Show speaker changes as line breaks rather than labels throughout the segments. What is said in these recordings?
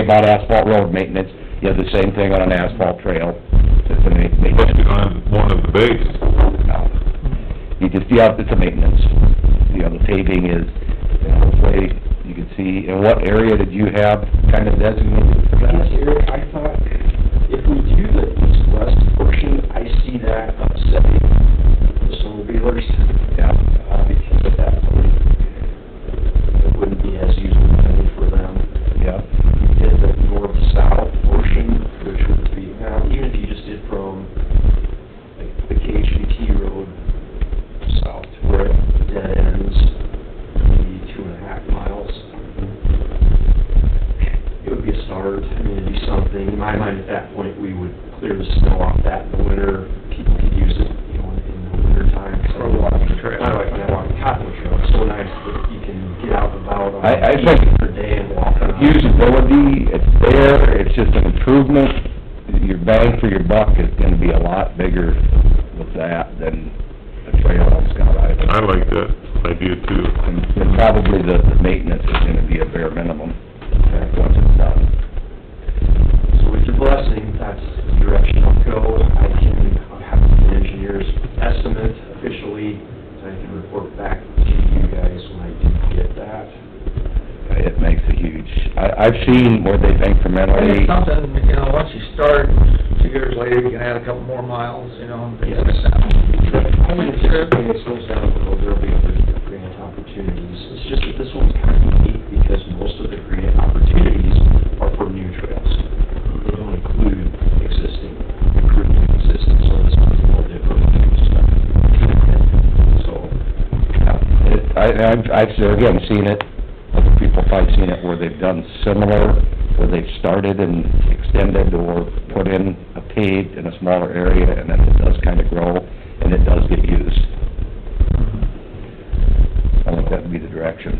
about asphalt road maintenance, you have the same thing on an asphalt trail, it's a ma-
Plus
maintenance.
you don't have one at the base.
No. You just, yeah, it's a maintenance, you know, the paving is, you know, this way you can see, and what area did you have kind of designated for that?
Yes, Eric, I thought if we do the east-west portion, I see that upsetting the solar dealers,
Yeah,
uh, because at that point, it wouldn't be as usual money for them.
yeah,
Did the north-south portion, which would be, now, even if you just did from like the KHVT road south to where it dead ends, maybe two and a half miles it would be a start, I mean, it'd be something, in my mind, at that point, we would clear the snow off that in the winter, people could use it, you know, in the winter time.
Or walking trail.
My wife and I walk the Cottonwood Trail, it's so nice that you can get out and about on.
I- I think-
For a day and walk around.
usability, it's there, it's just an improvement, your bang for your buck is gonna be a lot bigger with that than a trail on Scott Island.
I like that idea too.
And and probably the, the maintenance is gonna be a bare minimum, uh, once it's done.
So with your blessing, that's the direction I'll go. I can have the engineer's estimate officially, so I can report back to you guys when I do get that.
It makes a huge, I, I've seen where they've incrementally,
It's something, you know, once you start, two years later, you can add a couple more miles, you know, and things like that.
I would anticipate it slows down, though there'll be other grant opportunities. It's just that this one's kind of unique because most of the grant opportunities are for new trails. They don't include existing, improving existing, so this one's a little different. So,
it- I, I've, I've, again, seen it, other people probably seen it where they've done similar, where they've started and extended or put in a paved in a smaller area, and then it does kind of grow, and it does get used. I think that'd be the direction.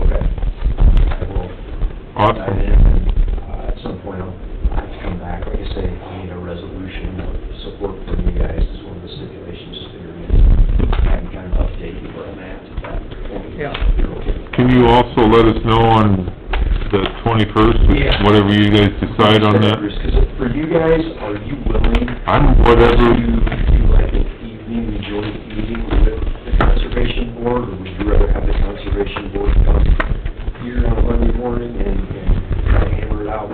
okay. I will dive
Awesome.
in, and uh, at some point, I'll have to come back. Like I say, I need a resolution of support from you guys, is one of the stipulations, just figuring I can kind of update you where I'm at at that point.
Yeah.
If you're okay.
Can you also let us know on the twenty-first,
Yeah.
whatever you guys decide on that?
Because for you guys, are you willing
I'm
to
whatever,
do like an evening, joint meeting with the conservation board? Or would you rather have the conservation board come here on Monday morning and, and try to hammer it out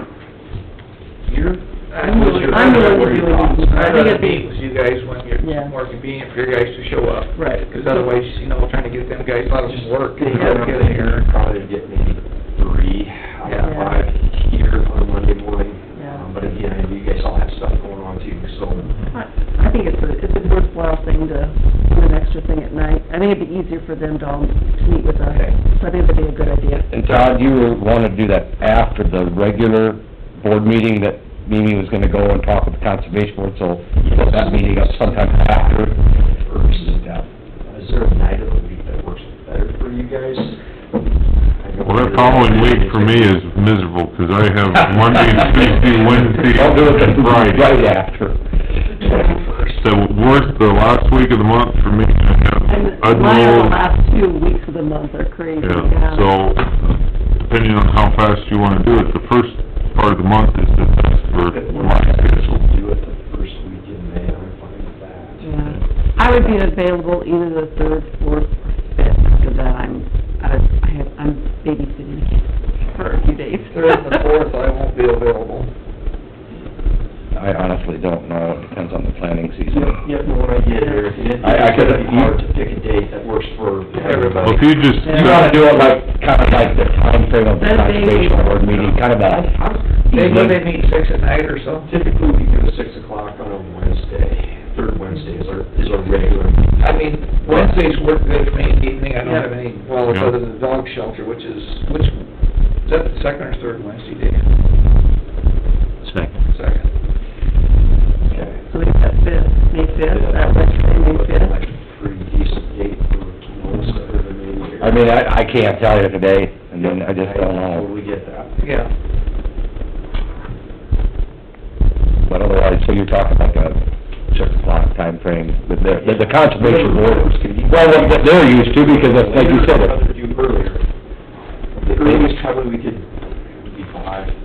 here?
I'm willing,
I'm willing.
What are your thoughts? I think it'd be with you guys when
Yeah.
you're more convenient for you guys to show up. Right. Because otherwise, you know, trying to get them guys out of
Just
work.
They have
Get in here.
probably get maybe three out of
Yeah.
five here on Monday morning.
Yeah.
Um, But again, I know you guys all have stuff going on too, so
I I think it's a, it's a worthwhile thing to do an extra thing at night. I think it'd be easier for them to all meet with us.
Okay.
So I think that'd be a good idea.
And Todd, you were wanting to do that after the regular board meeting that Mimi was gonna go and talk with the conservation board, so put that meeting up sometime after.
first.
Yeah.
Is there a night of the week that works better for you guys?
well, that following week for me is miserable, 'cause I have Monday, Tuesday, Wednesday,
I'll do it the-
and Friday.
Right after.
Twenty-first.
The worst, the last week of the month for me, I have, I
And mine are the last two weeks of the month are crazy,
Yeah,
yeah.
so, depending on how fast you wanna do it, the first part of the month is the best for my schedule.
Do it the first week in May, I'm fine with that.
Yeah. I would be available either the third, fourth, or fifth, because I'm, I I have, I'm babysitting kids for a few days.
Third and the fourth, I won't be available.
I honestly don't know, it depends on the planning
Yep,
season.
yep, no, what I get here, and it-
I- I
it's gonna
could-
be hard to pick a date that works for
Well,
everybody.
if you just,
You wanna do it like, kinda like the timeframe of the
That's
conservation board meeting, kind of a,
They, when they meet six at night or so.
Typically, we do a six o'clock on a Wednesday, third Wednesday is our, is our regular. meeting.
I mean, Wednesdays work good for me in the evening, I don't have any, well,
Yeah.
other than the dog shelter, which is, which, is that the second or third Wednesday day?
Second.
Second.
Okay.
So we got fifth, May fifth, that Wednesday, May
uh, Like
fifth.
a Pretty decent date for most of the meeting.
I mean, I, I can't tell you today, and then I just uh, don't know.
Totally get that.
Yeah.
But otherwise, so you're talking like a six o'clock timeframe, but the, but the conservation board, well, what they're used to, because that's, like you said,